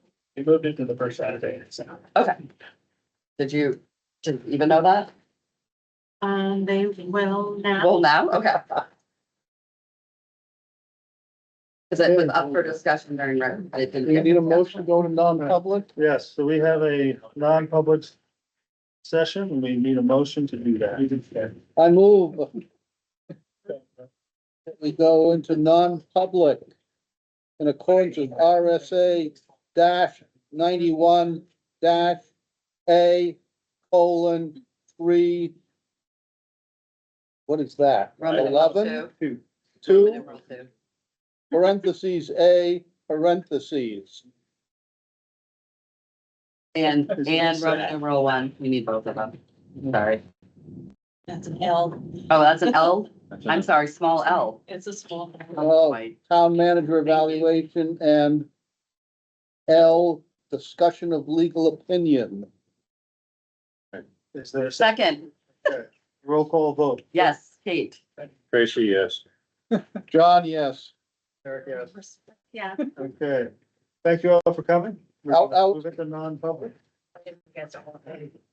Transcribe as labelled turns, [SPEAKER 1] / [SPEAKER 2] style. [SPEAKER 1] We moved it to the first Saturday in December.
[SPEAKER 2] Okay. Did you, did you even know that?
[SPEAKER 3] Um, they will now.
[SPEAKER 2] Well, now, okay. Because it was up for discussion during, rec- it didn't.
[SPEAKER 4] We
[SPEAKER 2] get
[SPEAKER 4] need a motion to go to non-public.
[SPEAKER 1] Yes, so we have a non-public session, and we need a motion to do that.
[SPEAKER 4] I move. that We go into non-public in accordance with RSA dash ninety-one dash A colon three. What is that?
[SPEAKER 2] Roman numeral
[SPEAKER 4] Eleven,
[SPEAKER 1] Two.
[SPEAKER 2] Roman
[SPEAKER 4] two,
[SPEAKER 2] numeral two.
[SPEAKER 4] parentheses, A, parentheses.
[SPEAKER 2] And,
[SPEAKER 1] Is it
[SPEAKER 2] and Roman
[SPEAKER 1] sad?
[SPEAKER 2] numeral one, we need both of them. Sorry.
[SPEAKER 3] That's an L.
[SPEAKER 2] Oh, that's an L? I'm sorry, small L.
[SPEAKER 3] It's a small.
[SPEAKER 4] Oh,
[SPEAKER 2] Wait,
[SPEAKER 4] town manager evaluation and L, discussion of legal opinion.
[SPEAKER 1] Is there a second?
[SPEAKER 2] Second,
[SPEAKER 1] Roll call vote.
[SPEAKER 2] yes, Kate.
[SPEAKER 5] Tracy, yes.
[SPEAKER 4] John, yes.
[SPEAKER 1] Eric, yes.
[SPEAKER 3] Yeah.
[SPEAKER 1] Okay, thank you all for coming.
[SPEAKER 4] Out, out.
[SPEAKER 1] Move it to non-public.